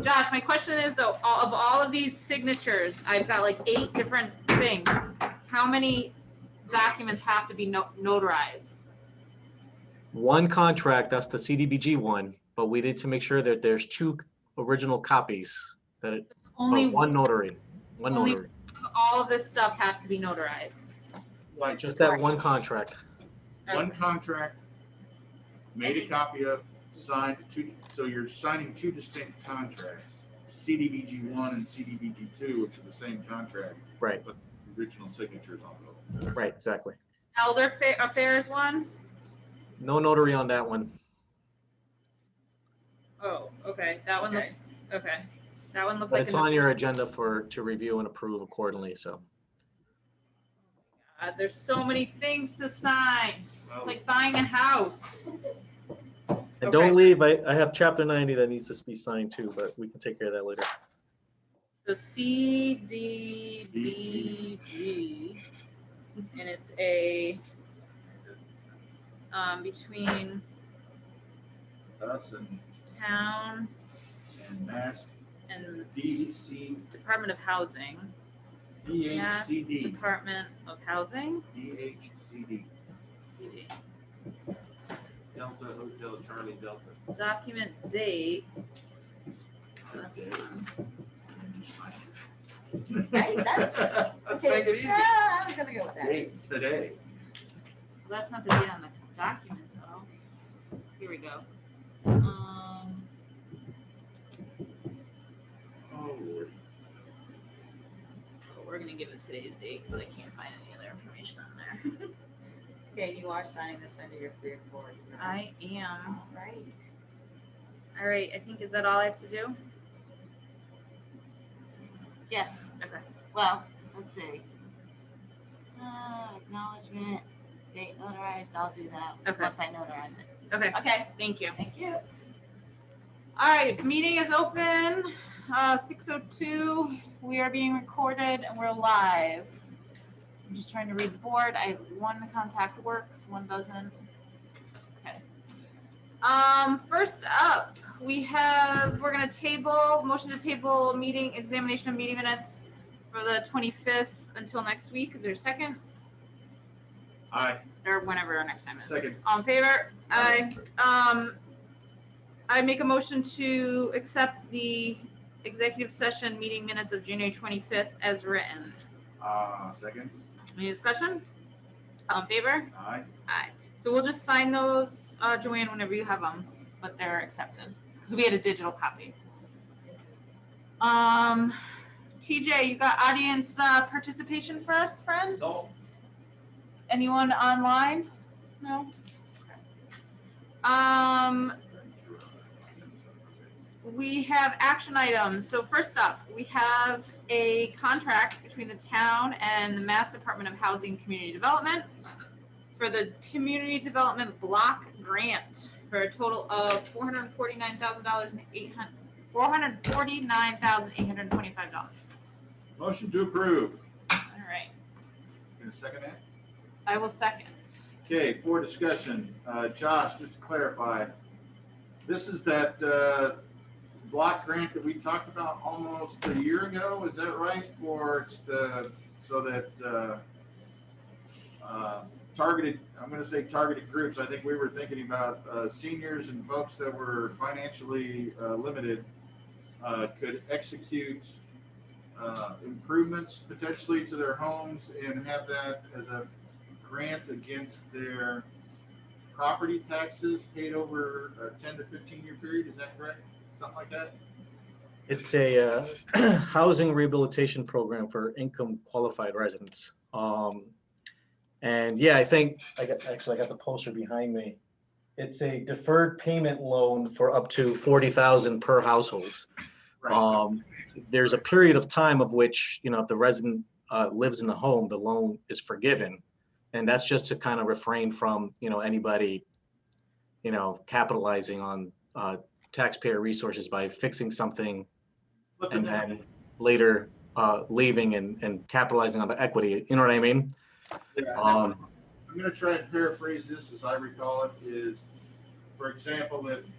Josh, my question is though, all- of all of these signatures, I've got like eight different things. How many documents have to be no- notarized? One contract, that's the CDBG one, but we need to make sure that there's two original copies that it, Only but one one notary, one only- notary. of all of this stuff has to be notarized. Like, Just that one contract. one contract, made a copy of, signed two, so you're signing two distinct contracts. CDBG one and CDBG two, which are the same contract, Right, but original signatures on both. right, exactly. Elder fa- affairs one? No notary on that one. Oh, okay, that one looks, okay. That one looked But like, it's another- on your agenda for, to review and approve accordingly, so. uh, there's so many things to sign. It's like buying a house. And Okay. don't leave, I, I have chapter ninety that needs to be signed too, but we can take care of that later. So C D B G, and it's a, um, between Us and, town and Mass E and DC, Department of Housing, DHCD, Department of Housing, DHCD, CD. Delta Hotel Charlie Delta. Document date, that's today. fun. Right, that's- Let's make it easy. Yeah, Ah, I'm gonna go with that. Date today. that's not the date on the document though. Here we go. Um, Oh, Lord. oh, we're gonna give it today's date, cause I can't find any other information on there. Okay, you are signing this under your free authority. I am, All right. all right, I think, is that all I have to do? Yes. Okay. Well, let's see. Uh, acknowledgement, date notarized, I'll do that. Okay. Once I notarize it. Okay, Okay, thank you. thank you. All right, meeting is open, uh, six oh two. We are being recorded and we're live. I'm just trying to read the board. I, one contact works, one doesn't. Okay. Um, first up, we have, we're gonna table, motion to table meeting, examination of meeting minutes for the twenty-fifth until next week. Is there a second? Aye, Or whenever our next time is. second. All in favor? Aye. Um, I make a motion to accept the executive session meeting minutes of January twenty-fifth as written. Uh, second, Any discussion? All in favor? aye. Aye. So we'll just sign those, uh, Joanne, whenever you have them, but they're accepted, because we had a digital copy. Um, TJ, you got audience, uh, participation for us, friend? No. Anyone online? No? Um, we have action items. So first up, we have a contract between the town and the Mass Department of Housing and Community Development for the Community Development Block Grant for a total of four hundred forty-nine thousand dollars and eight hundred, four hundred forty-nine thousand eight hundred twenty-five dollars. Motion to approve. All right, Gonna second that? I will second. Okay, for discussion, uh, Josh, just to clarify, this is that, uh, block grant that we talked about almost a year ago, is that right? For, it's the, so that, uh, uh, targeted, I'm gonna say targeted groups, I think we were thinking about, uh, seniors and folks that were financially, uh, limited, uh, could execute, uh, improvements potentially to their homes and have that as a grant against their property taxes paid over a ten to fifteen year period, is that correct? Something like that? It's a uh, housing rehabilitation program for income qualified residents. Um, And yeah, I think, I got, actually, I got the poster behind me. It's a deferred payment loan for up to 40,000 per household. Right. Um, There's a period of time of which, you know, if the resident uh, lives in the home, the loan is forgiven. And that's just to kind of refrain from, you know, anybody, you know, capitalizing on uh, taxpayer resources by fixing something Flipping and that. then later uh, leaving and, and capitalizing on the equity. You know what I mean? Yeah, Um, I'm gonna try and paraphrase this as I recall it, is, for example, if